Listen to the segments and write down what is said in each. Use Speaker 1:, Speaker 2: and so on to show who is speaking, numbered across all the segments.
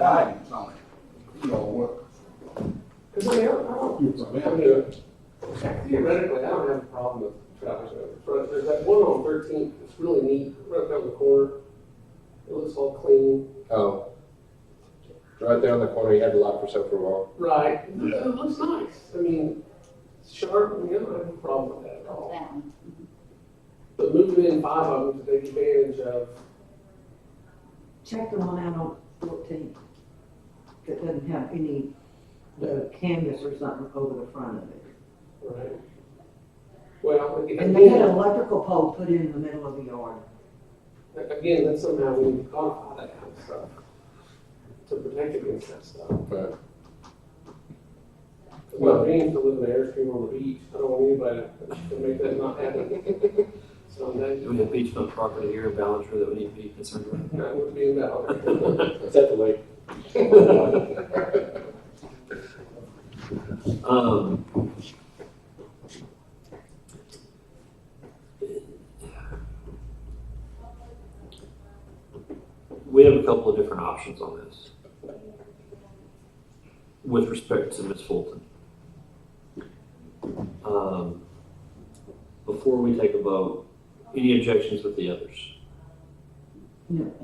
Speaker 1: guidance on it. You know, what,
Speaker 2: Because I have a problem.
Speaker 1: you
Speaker 3: I
Speaker 1: prevent.
Speaker 3: mean, Theoretically, I don't have a problem with two hours over, but there's that one on Thirteenth, it's really neat, right down the corner. It looks all clean.
Speaker 4: Oh. Right there on the corner, you had the lot for so for a while.
Speaker 3: Right. It looks- it looks nice, I mean, it's sharp, I mean, I don't have a problem with that at all. But moving in five of them to take advantage of,
Speaker 2: Check the one out on fourteen, that doesn't have any, the canvas or something over the front of it.
Speaker 3: right? Well,
Speaker 2: And they had an
Speaker 3: again,
Speaker 2: electrical pole put in the middle of the yard.
Speaker 3: again, that's somehow we need to codify that kind of stuff to protect against that stuff.
Speaker 4: But
Speaker 3: Well, being to live in an airstream on the beach, I don't want anybody to make that not happen. So that,
Speaker 5: Do we have beach front property here in Ballenger that we need to be concerned about?
Speaker 3: that would be invalid.
Speaker 4: it's at the lake.
Speaker 5: Um, We have a couple of different options on this with respect to Ms. Fulton. Um, Before we take a vote, any objections with the others?
Speaker 2: No.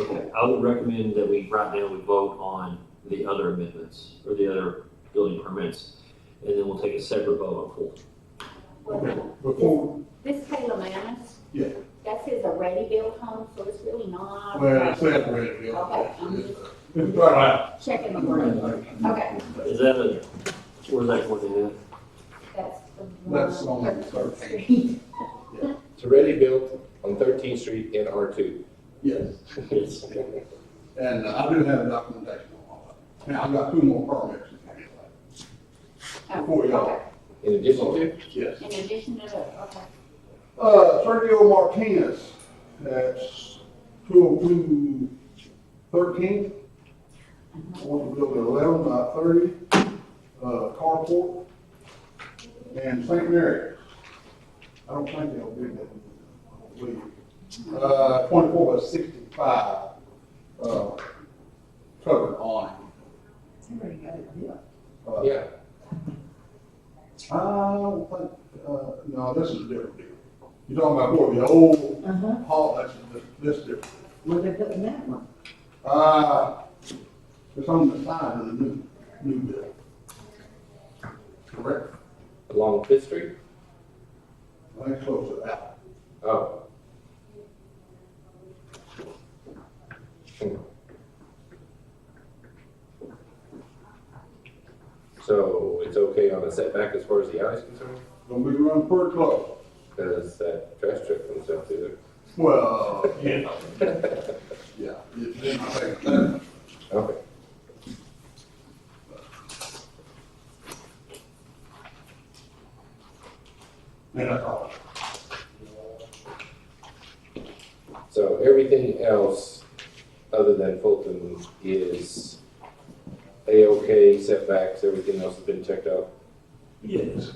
Speaker 5: Okay, I would recommend that we, right now, we vote on the other amendments or the other building permits, and then we'll take a separate vote on Fulton.
Speaker 1: Okay,
Speaker 6: Well,
Speaker 1: before,
Speaker 6: This Taylor Manus,
Speaker 1: yeah,
Speaker 6: that's his already built home, so it's really not.
Speaker 1: well, it's separated,
Speaker 6: Okay,
Speaker 1: yeah.
Speaker 6: I'm
Speaker 1: It's all right.
Speaker 6: just checking the word. Okay.
Speaker 5: Is that a, where's that going at?
Speaker 6: That's the one.
Speaker 1: That's on the thirteenth,
Speaker 4: It's already built on Thirteenth Street in R two.
Speaker 1: yes,
Speaker 5: Yes.
Speaker 1: and I do have documentation on all of it. Now, I've got two more permits. to get.
Speaker 6: Oh,
Speaker 1: Before y'all.
Speaker 6: okay.
Speaker 4: In addition to,
Speaker 1: Yes.
Speaker 6: In addition to the, okay.
Speaker 1: Uh, Sergio Martinez, that's two oh two thirteen. Want to build an eleven by thirty, uh, carport. And St. Mary. I don't think they'll do that. I don't believe. Uh, twenty-four by sixty-five, uh, covered awning.
Speaker 2: Somebody got it built.
Speaker 1: Uh,
Speaker 4: yeah,
Speaker 1: I don't think, uh, no, this is a different deal. You're talking about where the old
Speaker 2: Uh-huh.
Speaker 1: hall, that's, this different.
Speaker 2: Where they put in that one?
Speaker 1: Uh, it's on the side of the new, new building. Correct?
Speaker 4: along Fifth Street.
Speaker 1: I think close to that.
Speaker 4: Oh. Hmm. So it's okay on the setback as far as the eye is concerned,
Speaker 1: Gonna be run pretty close.
Speaker 4: because that trash truck comes out through
Speaker 1: Well, yeah. Yeah. it's in my second.
Speaker 4: there. Okay.
Speaker 1: And that's all.
Speaker 4: So everything else, other than Fulton, is A-OK setbacks, everything else has been checked out?
Speaker 5: Yes.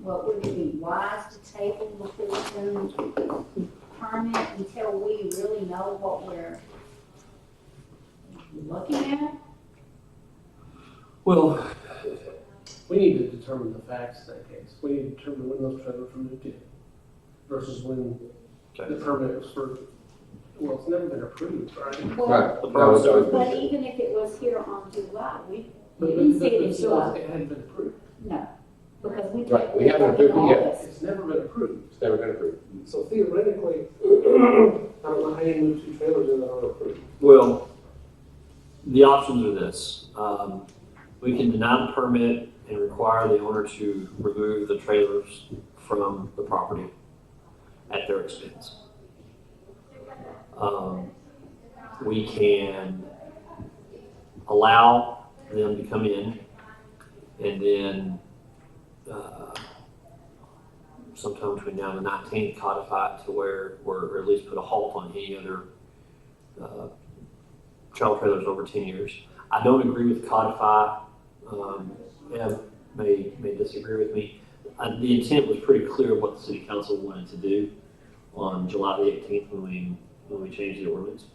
Speaker 6: Well, would it be wise to table the Fulton permit until we really know what we're looking at?
Speaker 5: Well,
Speaker 3: We need to determine the facts in that case. We need to determine when those trailers were moved in versus when the
Speaker 5: okay.
Speaker 3: permit was for, well, it's never been approved, right?
Speaker 6: Well,
Speaker 4: Right, that was always been
Speaker 6: But
Speaker 4: checked.
Speaker 6: even if it was here on July, we, we
Speaker 3: But
Speaker 6: didn't
Speaker 3: but-
Speaker 6: see it
Speaker 3: but
Speaker 6: in
Speaker 3: still,
Speaker 6: July,
Speaker 3: it hadn't been approved.
Speaker 6: no, because we.
Speaker 4: Right,
Speaker 6: took
Speaker 4: we haven't
Speaker 6: it
Speaker 4: approved it yet.
Speaker 6: in August.
Speaker 3: It's never been approved.
Speaker 4: It's never been approved.
Speaker 3: So theoretically, I don't know how you move two trailers in that aren't approved.
Speaker 5: Well, the options are this. Um, we can deny the permit and require the owner to remove the trailers from the property at their expense. Um, we can allow them to come in and then, uh, sometime between now and the nineteenth codify it to where, or at least put a halt on any other uh, child trailers over ten years. I don't agree with codify. Um, Ev may may disagree with me. Uh, the intent was pretty clear of what the city council wanted to do on July the eighteenth when we when we changed the ordinance.